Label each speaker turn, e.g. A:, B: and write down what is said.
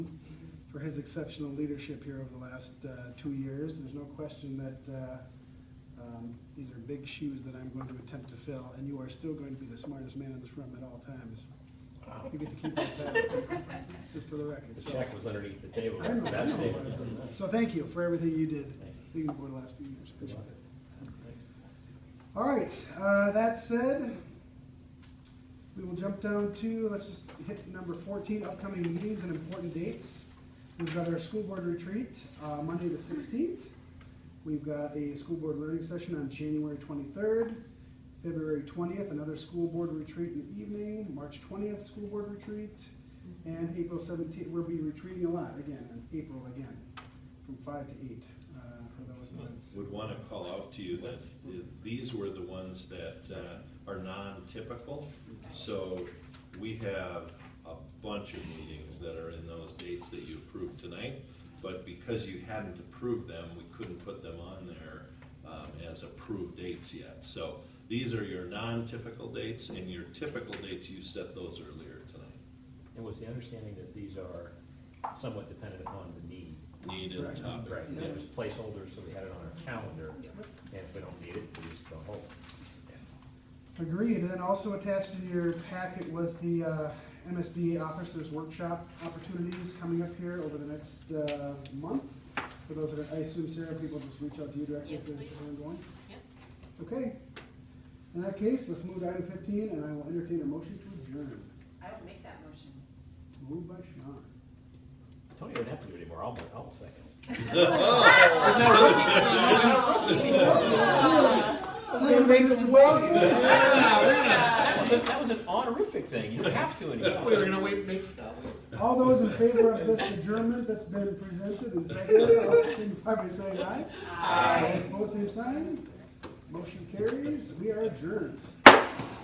A: his exceptional leadership here over the last uh, two years. There's no question that uh, um, these are big shoes that I'm going to attempt to fill, and you are still going to be the smartest man in this room at all times. You get to keep that title, just for the record.
B: The
A: So-
B: check was underneath the table.
A: I know, I
B: That's
A: know.
B: it.
A: So thank you for everything you did,
B: Thank you.
A: leading the board the last few years. Appreciate it. All right, uh, that said, we will jump down to, let's just hit number fourteen, upcoming meetings and important dates. We've got our school board retreat, uh, Monday the sixteenth. We've got a school board learning session on January twenty-third, February twentieth, another school board retreat in the evening, March twentieth, school board retreat, and April seventeenth, we'll be retreating a lot again, in April again, from five to eight, uh, for those events.
C: Would want to call out to you that uh, these were the ones that uh, are non-typical. So we have a bunch of meetings that are in those dates that you approved tonight. But because you hadn't approved them, we couldn't put them on there um, as approved dates yet. So these are your non-typical dates and your typical dates, you set those earlier tonight.
B: And was the understanding that these are somewhat dependent upon the need?
C: Need and
A: Correct.
C: topic.
B: Right, there was placeholders, so we had it on our calendar, and if we don't need it, we just don't hold. it.
A: Agreed, and then also attached in your packet was the uh, MSBA Officers Workshop opportunities coming up here over the next uh, month. For those that, are- I assume Sarah, people just reach out to you directly if
D: Yes,
A: they're
D: please.
A: interested in going?
D: Yep.
A: Okay. In that case, let's move to item fifteen, and I will entertain a motion to adjourn.
D: I will make that motion.
A: Moved by Sean.
B: Tony doesn't have to do it anymore, I'll, I'll second.
A: Second by Mr. Wade.
B: That was, a- that was an honorific thing, you don't have to anymore.
E: We were gonna wait, make stuff.
A: All those in favor of this adjournment that's been presented and seconded, all signify by saying aye. Aye. Opposed, same sign. Motion carries. We are adjourned.